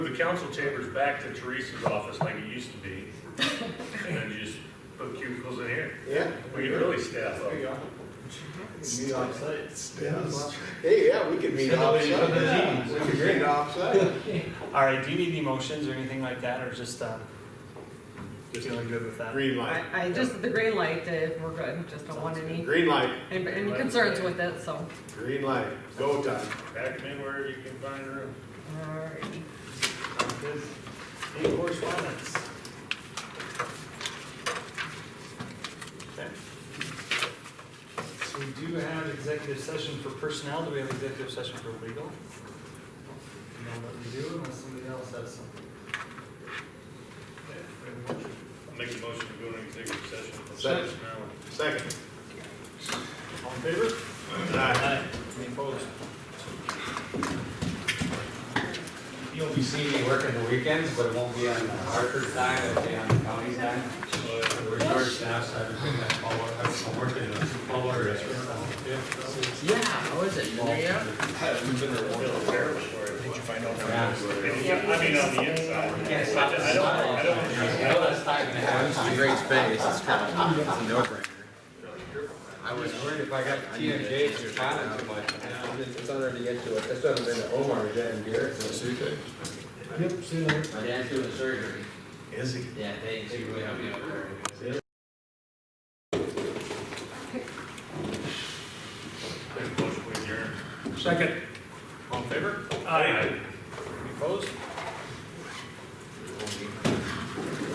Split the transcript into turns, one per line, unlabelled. council chamber's back to Teresa's office like it used to be, and then you just put cubicles in here.
Yeah.
We could really staff up.
There you go. Meet offsite.
Mm-hmm.
Yes.
Hey, yeah, we could meet offsite. We could meet offsite.
All right, do you need any motions or anything like that, or just, um, feeling good with that?
Green light.
I, I just, the green light, uh, we're good, just don't want any,
Green light,
any any concerns with it, so.
green light, go time.
Back them in where you can find room.
Alrighty.
Sounds good. Any correspondence? Okay. So we do have executive session for personnel, do we have executive session for legal? No, what we do unless somebody else has something. Okay, we have a motion.
Make a motion to go into executive session. for
Second.
personnel.
Second.
All in favor?
Aye.
Any opposed?
You'll be seeing me working the weekends, but it won't be on the Hartford time, it'll be on the county time. We're short staff, so I've been doing that all, I've been working in a small water restaurant.
Yeah, how is it? You there yet?
Feel terrible for it. Did you find out?
Yeah.
I mean, on the inside.
Can't stop the
I don't, I don't.
I know that's time and a
It's
half.
a great space. It's kind of, it's a no-brainer.
I was worried if I got TMJ to respond too much.
It's an honor to get to it. That's what I've been to Omar, Dan Garrett.
Yep, see you later.
My dad's doing surgery.
Is he?
Yeah, thanks. You really helped me out there.
Make a motion to adjourn.
Second. All in favor?
Aye.
Any opposed?